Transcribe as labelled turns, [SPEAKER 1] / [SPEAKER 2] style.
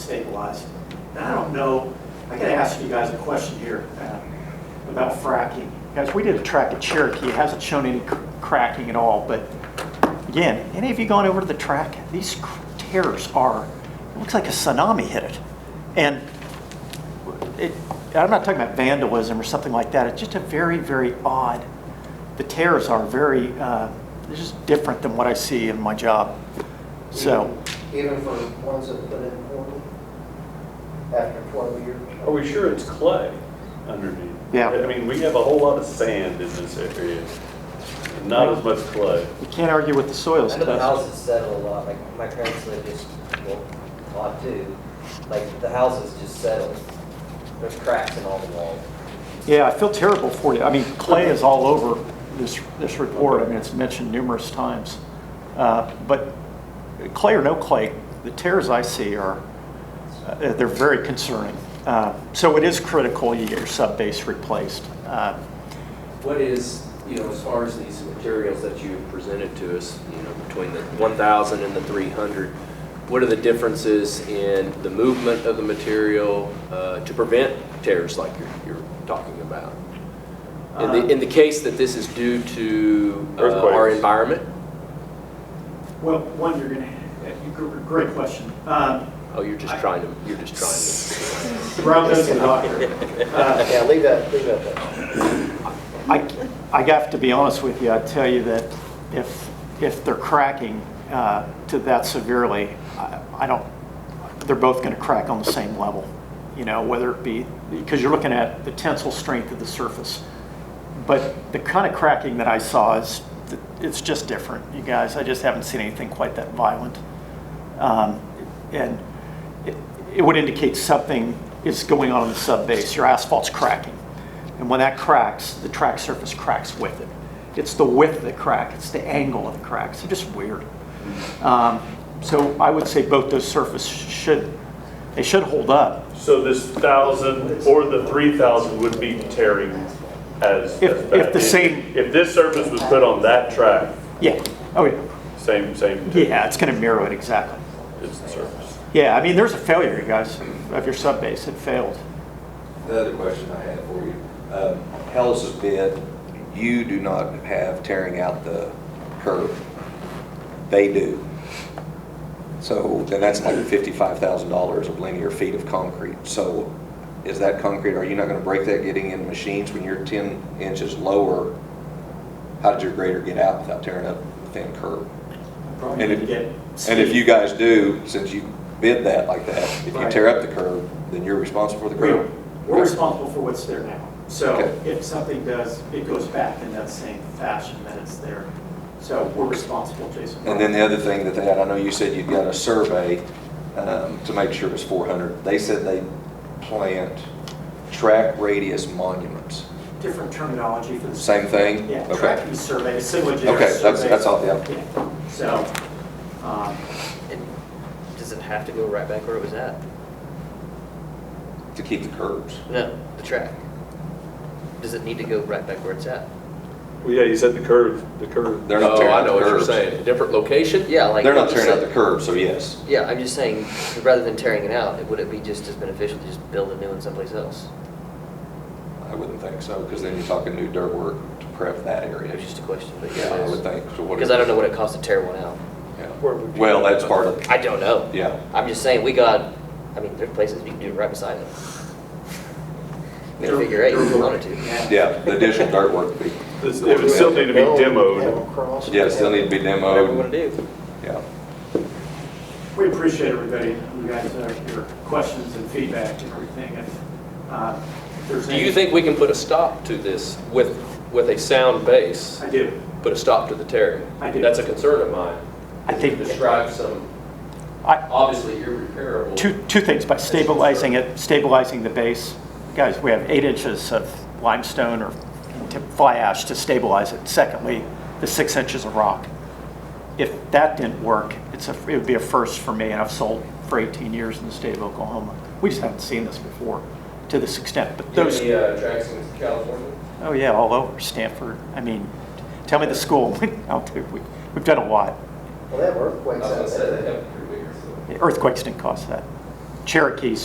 [SPEAKER 1] was. And I don't know, I gotta ask you guys a question here uh, about fracking. Guys, we did a track at Cherokee, it hasn't shown any cr- cracking at all, but again, any of you gone over to the track? These cr- tears are, it looks like a tsunami hit it. And it, I'm not talking about vandalism or something like that, it's just a very, very odd, the tears are very, uh, they're just different than what I see in my job, so.
[SPEAKER 2] Even for ones that put in poorly after 12 years?
[SPEAKER 3] Are we sure it's clay underneath?
[SPEAKER 1] Yeah.
[SPEAKER 3] I mean, we have a whole lot of sand in this area, and not as much clay.
[SPEAKER 1] You can't argue with the soils
[SPEAKER 4] I know the
[SPEAKER 1] test.
[SPEAKER 4] houses settle a lot, like my parents live just, well, lot two, like the houses just settle. There's cracks in all the walls.
[SPEAKER 1] Yeah, I feel terrible for you. I mean, clay is all over this, this report. I mean, it's mentioned numerous times. Uh, But clay or no clay, the tears I see are, uh, they're very concerning. Uh, So it is critical you get your sub-base replaced. Uh,
[SPEAKER 5] What is, you know, as far as these materials that you presented to us, you know, between the 1,000 and the 300, what are the differences in the movement of the material uh, to prevent tears like you're, you're talking about? In
[SPEAKER 4] Uh,
[SPEAKER 5] the, in the case that this is due to uh, our
[SPEAKER 3] Earthquakes.
[SPEAKER 5] environment?
[SPEAKER 1] Well, one, you're going to, great question. Um,
[SPEAKER 5] Oh, you're just trying to, you're just trying
[SPEAKER 1] Rob knows the doctor. Uh,
[SPEAKER 2] Yeah, leave that, leave that there.
[SPEAKER 1] I, I have to be honest with you, I tell you that if, if they're cracking uh, to that severely, I I don't, they're both going to crack on the same level, you know, whether it be, because you're looking at the tensile strength of the surface. But the kind of cracking that I saw is, it's just different, you guys. I just haven't seen anything quite that violent. Um, And it- it would indicate something is going on in the subbase. Your asphalt's cracking. And when that cracks, the track surface cracks with it. It's the width of the crack, it's the angle of the cracks. They're just weird. Um, So I would say both those surfaces should, they should hold up.
[SPEAKER 3] So this thousand or the three thousand would be tearing as. as
[SPEAKER 1] If- if
[SPEAKER 3] bad.
[SPEAKER 1] the same-
[SPEAKER 3] If this surface was put on that track,
[SPEAKER 1] Yeah, oh yeah,
[SPEAKER 3] same, same.
[SPEAKER 1] yeah, it's going to mirror it exactly.
[SPEAKER 3] It's the surface.
[SPEAKER 1] Yeah, I mean, there's a failure, you guys, of your subbase. It failed.
[SPEAKER 6] The other question I had for you, um, Hell's bid, you do not have tearing out the curb. They do. So, then that's like $55,000 of linear feet of concrete. So is that concrete, are you not going to break that getting in machines when you're 10 inches lower? How did your grader get out without tearing up the thin curb?
[SPEAKER 1] Probably
[SPEAKER 6] And
[SPEAKER 1] need to
[SPEAKER 6] if-
[SPEAKER 1] get
[SPEAKER 6] And if
[SPEAKER 1] speed.
[SPEAKER 6] you guys do, since you bid that like that, if you
[SPEAKER 1] Right.
[SPEAKER 6] tear up the curb, then you're responsible for the
[SPEAKER 1] We're
[SPEAKER 6] curb.
[SPEAKER 1] we're responsible for what's there now. So
[SPEAKER 6] Okay.
[SPEAKER 1] if something does, it goes back in that same fashion that it's there. So we're responsible, Jason.
[SPEAKER 6] And then the other thing that they had, I know you said you'd got a survey um, to make sure it was 400. They said they plant track radius monuments.
[SPEAKER 1] Different terminology for the.
[SPEAKER 6] Same thing?
[SPEAKER 1] Yeah,
[SPEAKER 6] Okay.
[SPEAKER 1] tracking survey, similar to.
[SPEAKER 6] Okay, that's, that's all, yeah.
[SPEAKER 1] So, um,
[SPEAKER 4] And does it have to go right back where it was at?
[SPEAKER 6] To keep the curbs.
[SPEAKER 4] No, the track. Does it need to go right back where it's at?
[SPEAKER 3] Well, yeah, you said the curve, the curve.
[SPEAKER 6] They're
[SPEAKER 5] to.
[SPEAKER 6] not
[SPEAKER 5] Oh,
[SPEAKER 6] tearing
[SPEAKER 5] I
[SPEAKER 6] out
[SPEAKER 5] know
[SPEAKER 6] the
[SPEAKER 5] what you're
[SPEAKER 6] curbs.
[SPEAKER 5] saying, a different location?
[SPEAKER 4] Yeah, like.
[SPEAKER 6] They're not
[SPEAKER 4] you
[SPEAKER 6] tearing out the
[SPEAKER 4] said-
[SPEAKER 6] curbs, so yes.
[SPEAKER 4] Yeah, I'm just saying, rather than tearing it out, would it be just as beneficial to just build a new one someplace else?
[SPEAKER 6] I wouldn't think so, because then you're talking new dirt work to prep that
[SPEAKER 4] It
[SPEAKER 6] area.
[SPEAKER 4] was just a question, but.
[SPEAKER 6] Yeah, I would think. so what
[SPEAKER 4] Because I don't know what it costs to tear one out.
[SPEAKER 6] yeah.
[SPEAKER 3] Where would you-
[SPEAKER 6] Well, that's part of,
[SPEAKER 4] I don't know.
[SPEAKER 6] yeah.
[SPEAKER 4] I'm just saying, we got, I mean, there's places you can do it right beside it. Figure eight, if you wanted to.
[SPEAKER 6] Yeah, the additional dirt work would be,
[SPEAKER 3] This- It would still need to be demoed.
[SPEAKER 2] demoed.
[SPEAKER 6] yeah, still need to be
[SPEAKER 5] Um,
[SPEAKER 4] Whatever we
[SPEAKER 6] demoed.
[SPEAKER 4] want to do.
[SPEAKER 6] Yeah.
[SPEAKER 1] we appreciate everybody, you guys, uh, your questions and feedback and everything. And, uh, if there's
[SPEAKER 5] Do
[SPEAKER 1] any-
[SPEAKER 5] you think we can put a stop to this with, with a sound base,
[SPEAKER 1] I do.
[SPEAKER 5] put a stop to the tearing?
[SPEAKER 1] I do.
[SPEAKER 5] That's a concern of mine.
[SPEAKER 1] I think-
[SPEAKER 5] Describe some
[SPEAKER 1] I,
[SPEAKER 5] obviously irreparable.
[SPEAKER 1] two, two things, by stabilizing it, stabilizing the base. Guys, we have eight inches of limestone or tip fly ash to stabilize it. Secondly, the six inches of rock. If that didn't work, it's a, it would be a first for me, and I've sold for 18 years in the state of Oklahoma. We just haven't seen this before to this extent, but
[SPEAKER 5] Do you
[SPEAKER 1] those.
[SPEAKER 5] have any uh, tracks in California?
[SPEAKER 1] Oh, yeah, all over Stanford. I mean, tell me the school. I'll do- we- We've done a lot.
[SPEAKER 2] Well, that earthquake's
[SPEAKER 5] I was gonna
[SPEAKER 2] out
[SPEAKER 5] say,
[SPEAKER 2] there.
[SPEAKER 5] they have pretty big.
[SPEAKER 1] Earthquakes didn't cause that. Cherokee's